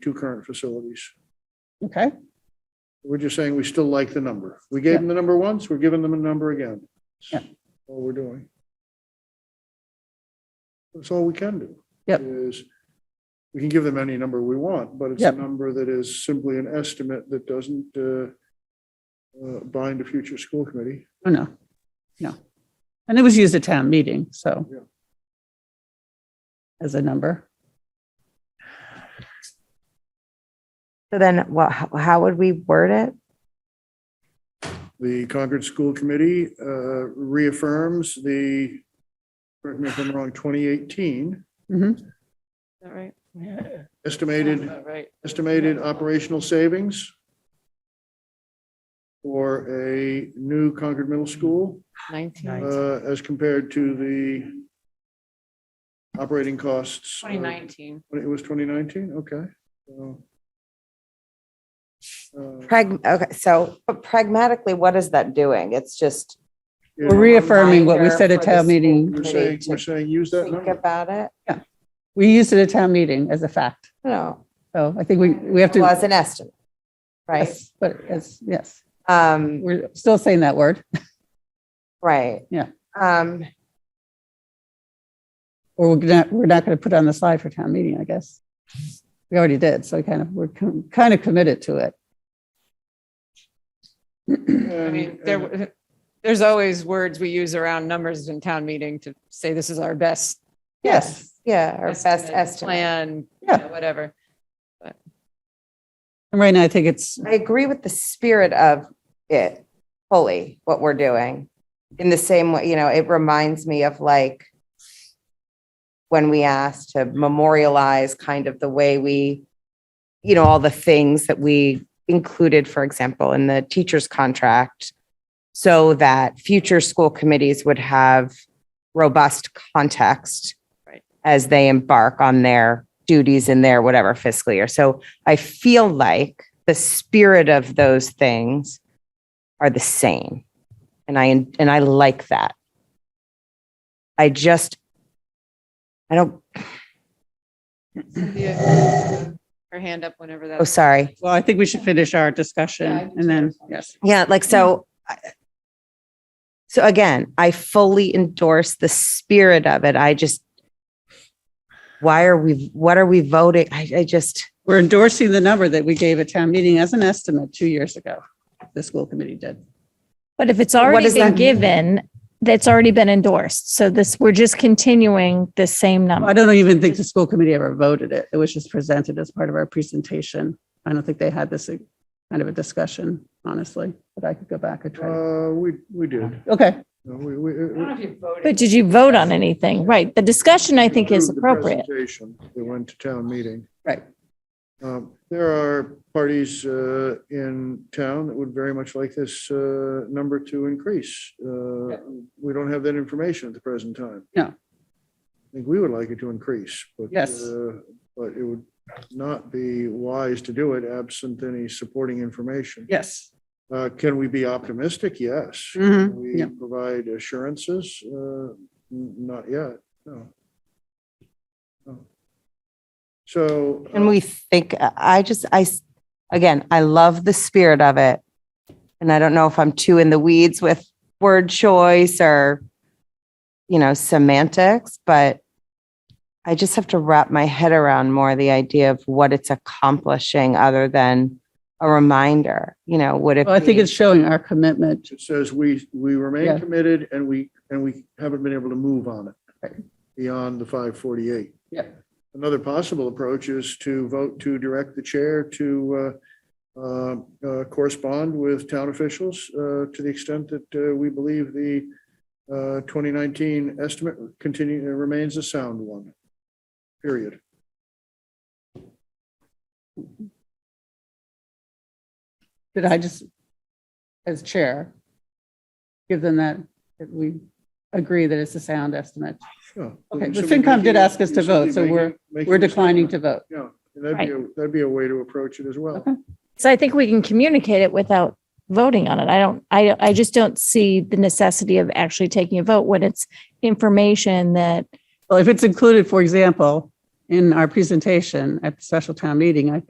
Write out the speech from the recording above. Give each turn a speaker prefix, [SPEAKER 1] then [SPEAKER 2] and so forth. [SPEAKER 1] two current facilities.
[SPEAKER 2] Okay,
[SPEAKER 1] We're just saying we still like the number. We gave them the number once, we're giving them a number again.
[SPEAKER 2] Yeah.
[SPEAKER 1] All we're doing. That's all we can do.
[SPEAKER 2] Yep.
[SPEAKER 1] Is, we can give them any number we want, but it's a
[SPEAKER 2] Yep.
[SPEAKER 1] number that is simply an estimate that doesn't uh, uh, bind a future school committee.
[SPEAKER 2] oh no, no. And it was used at town meeting, so.
[SPEAKER 1] Yeah.
[SPEAKER 2] As a number,
[SPEAKER 3] So then what, how how would we word it?
[SPEAKER 1] The Concord School Committee uh, reaffirms the, correct me if I'm wrong, 2018
[SPEAKER 2] Mhm.
[SPEAKER 4] Is that right?
[SPEAKER 1] estimated
[SPEAKER 4] About Right.
[SPEAKER 1] estimated operational savings for a new Concord Middle School
[SPEAKER 4] Nineteen.
[SPEAKER 1] uh, as compared to the operating costs. of-
[SPEAKER 4] Twenty nineteen.
[SPEAKER 1] It was 2019? Okay. So, uh,
[SPEAKER 3] Prag, okay, so but pragmatically, what is that doing? It's just.
[SPEAKER 1] yeah,
[SPEAKER 2] we're reaffirming what we
[SPEAKER 3] Reminder
[SPEAKER 2] said at
[SPEAKER 3] for the
[SPEAKER 2] town
[SPEAKER 3] school
[SPEAKER 2] meeting.
[SPEAKER 1] We're
[SPEAKER 3] committee
[SPEAKER 1] saying,
[SPEAKER 3] to
[SPEAKER 1] we're saying use that
[SPEAKER 3] Think
[SPEAKER 1] number.
[SPEAKER 3] about it,
[SPEAKER 2] We used it at town meeting as a fact.
[SPEAKER 3] no,
[SPEAKER 2] So I think we, we have to.
[SPEAKER 3] well, as an estimate, right?
[SPEAKER 2] Yes, But yes, yes,
[SPEAKER 3] Um,
[SPEAKER 2] we're still saying that word
[SPEAKER 3] right.
[SPEAKER 2] Yeah.
[SPEAKER 3] Um,
[SPEAKER 2] or we're not, we're not going to put it on the slide for town meeting, I guess. We already did. So kind of, we're com- kind of committed to it.
[SPEAKER 4] I
[SPEAKER 1] And-
[SPEAKER 4] mean,
[SPEAKER 1] and-
[SPEAKER 4] there, there's always words we use around numbers in town meeting to say this is our best.
[SPEAKER 2] Yes.
[SPEAKER 3] yeah, or best estimate.
[SPEAKER 4] Plan, you
[SPEAKER 2] Yeah.
[SPEAKER 4] know, whatever.
[SPEAKER 2] And right now I think it's
[SPEAKER 3] I agree with the spirit of it fully, what we're doing. In the same way, you know, it reminds me of like when we asked to memorialize kind of the way we, you know, all the things that we included, for example, in the teacher's contract so that future school committees would have robust context
[SPEAKER 4] Right.
[SPEAKER 3] as they embark on their duties in their whatever fiscal year. So I feel like the spirit of those things are the same. And I and I like that. I just I don't
[SPEAKER 4] Cynthia, Her hand up whenever that.
[SPEAKER 3] oh sorry.
[SPEAKER 2] Well, I think we should finish our
[SPEAKER 4] Yeah, I
[SPEAKER 2] discussion
[SPEAKER 4] do
[SPEAKER 2] and then,
[SPEAKER 4] too.
[SPEAKER 2] yes.
[SPEAKER 3] Yeah, like so. I- So again, I fully endorse the spirit of it. I just, why are we, what are we voting? I, I just,
[SPEAKER 2] We're endorsing the number that we gave at town meeting as an estimate two years ago. The school committee did.
[SPEAKER 5] But if it's
[SPEAKER 3] What
[SPEAKER 5] already
[SPEAKER 3] does
[SPEAKER 5] been
[SPEAKER 3] that mean?
[SPEAKER 5] given, that's already been endorsed. So this, we're just continuing the same
[SPEAKER 2] I
[SPEAKER 5] number.
[SPEAKER 2] don't even think the school committee ever voted it. It was just presented as part of our presentation. I don't think they had this uh, kind of a discussion, honestly, but I could go back and try. to-
[SPEAKER 1] Uh, we, we did.
[SPEAKER 2] Okay,
[SPEAKER 1] No, We, we.
[SPEAKER 4] I don't know if you voted.
[SPEAKER 5] But did you vote on anything? Right. The discussion I think
[SPEAKER 1] approved
[SPEAKER 5] is
[SPEAKER 1] the
[SPEAKER 5] appropriate.
[SPEAKER 1] presentation That went to town meeting.
[SPEAKER 2] right.
[SPEAKER 1] Um, There are parties uh, in town that would very much like this uh, number to increase. Uh, We don't have that information at the present time.
[SPEAKER 2] No.
[SPEAKER 1] I think we would like it to increase, but.
[SPEAKER 2] Yes.
[SPEAKER 1] uh, But it would not be wise to do it absent any supporting information.
[SPEAKER 2] Yes.
[SPEAKER 1] Uh, Can we be optimistic? Yes.
[SPEAKER 5] Mm-hmm.
[SPEAKER 2] Mhm.
[SPEAKER 1] Can we
[SPEAKER 2] Yeah.
[SPEAKER 1] provide assurances? Uh, n- Not yet, no. No. So. uh,
[SPEAKER 3] and we think, I just, I, s- again, I love the spirit of it. And I don't know if I'm too in the weeds with word choice or, you know, semantics, but I just have to wrap my head around more the idea of what it's accomplishing other than a reminder, you know, would it
[SPEAKER 2] Well, I think
[SPEAKER 3] be-
[SPEAKER 2] it's showing our commitment.
[SPEAKER 1] It says we, we remain
[SPEAKER 2] Yeah.
[SPEAKER 1] committed and we, and we haven't been able to move on it
[SPEAKER 2] Right.
[SPEAKER 1] beyond the 548.
[SPEAKER 2] Yeah.
[SPEAKER 1] Another possible approach is to vote to direct the chair to uh, uh, uh, correspond with town officials uh, to the extent that uh, we believe the uh, 2019 estimate continue, uh, remains a sound one. Period.
[SPEAKER 2] Did I just, as chair, give them that, that we agree that it's a sound estimate?
[SPEAKER 1] Yeah.
[SPEAKER 2] Okay, the
[SPEAKER 1] Simply
[SPEAKER 2] FinCom did
[SPEAKER 1] making-
[SPEAKER 2] ask us to vote, so
[SPEAKER 1] simply
[SPEAKER 2] we're-
[SPEAKER 1] making- making
[SPEAKER 2] We're
[SPEAKER 1] the
[SPEAKER 2] declining to
[SPEAKER 1] statement.
[SPEAKER 2] vote.
[SPEAKER 1] Yeah, and that'd be, a- that'd be a way to approach it as well.
[SPEAKER 2] Okay.
[SPEAKER 5] So I think we can communicate it without voting on it. I don't, I, I just don't see the necessity of actually taking a vote when it's information that
[SPEAKER 2] Well, if it's included, for example, in our presentation at the special town meeting, I think